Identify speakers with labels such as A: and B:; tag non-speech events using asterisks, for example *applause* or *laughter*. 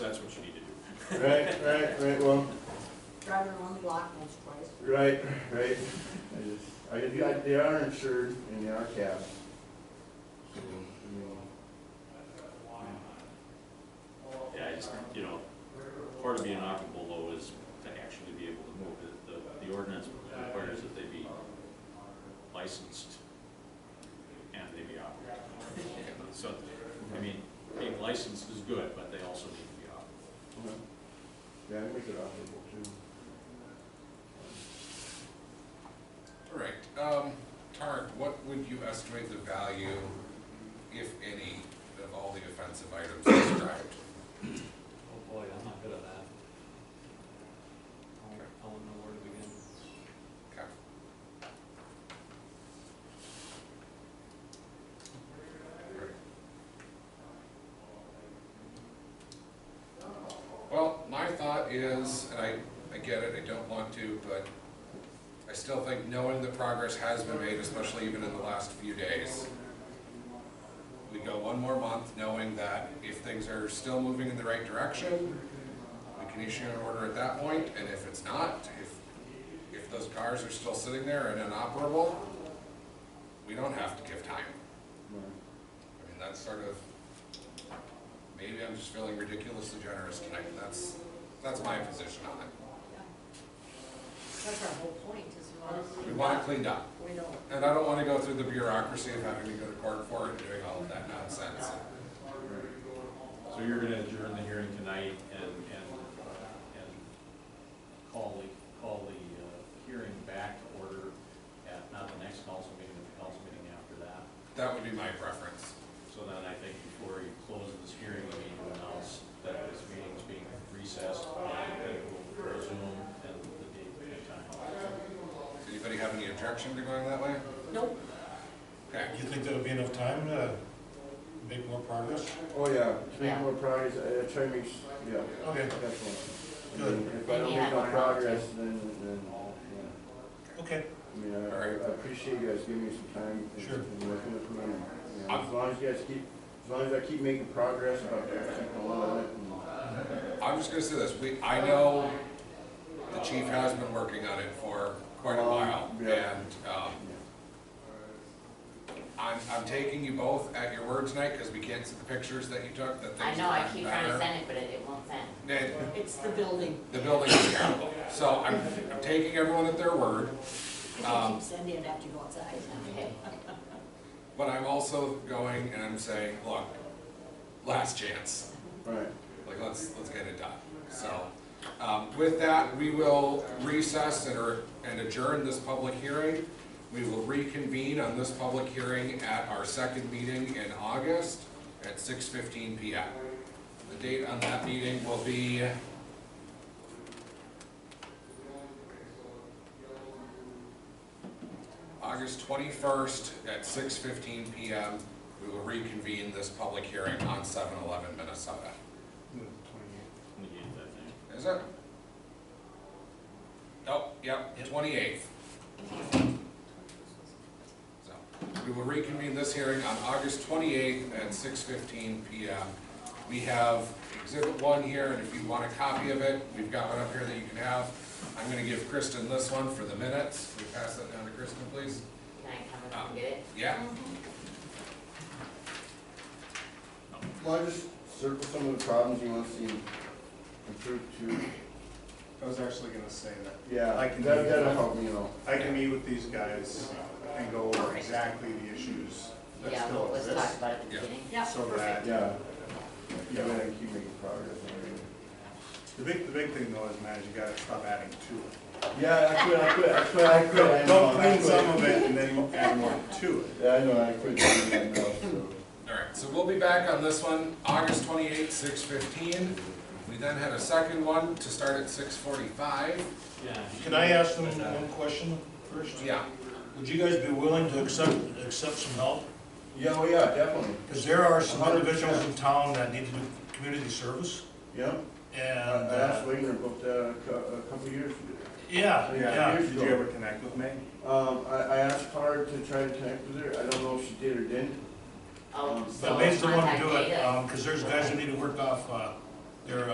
A: Right, right, right, well,
B: driving around the block once or twice.
A: right, right. I just, I, I- they are insured and they are capped. So, you know.
C: Yeah, I just, you know, part of being operable though is to actually be able to move it. The, the ordinance requires that they be licensed and they be operable. So, I mean, being licensed is good, but they also need to be operable.
A: Okay. Yeah, I make it operable too.
D: All right, um, Tarek, what would you estimate the value, if any, of all the offensive items described?
E: Oh boy, I'm not good at that. I don't know where to begin.
D: Okay. Well, my thought is, and I, I get it, I don't want to, but I still think knowing the progress has been made, especially even in the last few days. We go one more month knowing that if things are still moving in the right direction, we can issue an order at that point, and if it's not, if if those cars are still sitting there and inoperable, we don't have to give time.
A: Right.
D: I mean, that's sort of, maybe I'm just feeling ridiculously generous tonight, but that's, that's my position on it.
B: That's our whole point, is we want.
D: We want it cleaned up,
B: We don't.
D: and I don't wanna go through the bureaucracy of having to go to court for it and doing all of that nonsense.
C: So you're gonna adjourn the hearing tonight and, and, and call the, call the uh, hearing back to order at, not the next council meeting, but the council meeting after that.
D: That would be my preference.
C: So then I think before you close this hearing, we need to announce that this meeting is being recessed and that it will resume and the date and time.
D: Does anybody have any objection to going that way?
B: Nope,
D: Okay,
F: You think that'll be enough time to make more progress?
A: Oh, yeah, to make more progress, I I try to make, s- yeah,
F: Okay,
A: definitely.
F: Good.
A: And If I don't make no progress, then, then, yeah.
F: okay.
A: I mean, I, I
D: Alright.
A: appreciate you guys giving me some time and-
F: Sure.
A: and working with me. and, you know, As long as you guys keep, as long as I keep making progress, I'll keep going on it and.
D: I'm just gonna say this, we, I know the chief has been working on it for quite a while,
A: Um, yeah.
D: and, um, I'm, I'm taking you both at your word tonight, because we can't see the pictures that you took, that
G: I
D: things
G: know, I
D: aren't
G: keep trying to
D: better.
G: send it, but it, it won't send.
D: And
B: it's the building.
D: the building is terrible, so I'm, I'm taking everyone at their word,
B: If you
D: Um,
B: keep sending it after you go outside.
G: Okay.
D: but I'm also going and I'm saying, look, last chance.
A: Right.
D: like let's let's get it done. So, um, with that, we will recess and, or, and adjourn this public hearing. We will reconvene on this public hearing at our second meeting in August at six fifteen P M. The date on that meeting will be. August twenty-first at six fifteen P M. We will reconvene this public hearing on seven eleven Minnesota.
C: Negate that thing.
D: Is it? Oh, yep, twenty-eighth. So, we will reconvene this hearing on August twenty-eighth at six fifteen PM. We have exhibit one here, and if you want a copy of it, we've got one up here that you can have. I'm gonna give Kristen this one for the minutes. Can we pass that down to Kristen, please?
G: Can I come and come get it?
D: Yeah,
A: Well, I just circle some of the problems you want to see improved too.
H: I was actually gonna say that.
A: Yeah,
H: I can
A: that,
H: do
A: that'll
H: that.
A: help me out.
H: I can meet with these guys and go over exactly the issues that
G: Yeah,
H: still
G: let's talk
H: exist.
G: about it at the
D: Yeah.
G: beginning.
B: Yeah,
H: So
B: perfect.
H: that,
A: Yeah,
H: you
A: yeah,
H: know,
A: I keep making progress. on
H: the big, the big thing though is, man, is you gotta stop adding to it.
A: it. Yeah, I quit, I quit, I quit, I quit. I know,
H: Don't
A: I
H: clean
A: quit.
H: some of
F: *laughs*
H: it and then you add more to it.
A: Yeah, I know, I quit doing that now, so.
D: alright, so we'll be back on this one, August twenty-eighth, six fifteen. We then had a second one to start at six forty-five.
E: Yeah.
F: Can I ask them one question first?
D: Yeah,
F: Would you guys be willing to accept, accept some help?
A: Yeah, oh yeah, definitely.
F: Because there are some individuals in town that need to do community service,
A: Yeah,
F: and,
A: I I asked
F: uh,
A: Wagner about that a cou- a couple years ago.
F: yeah,
H: Yeah,
F: yeah.
H: did you ever connect with me?
A: Um, I, I asked Carr to try to connect with her. I don't know if she did or didn't.
G: Oh,
A: But
G: so
F: But Mason's the one to
G: contact
F: do it,
G: data.
F: um, because there's guys that need to work off, uh, their, uh,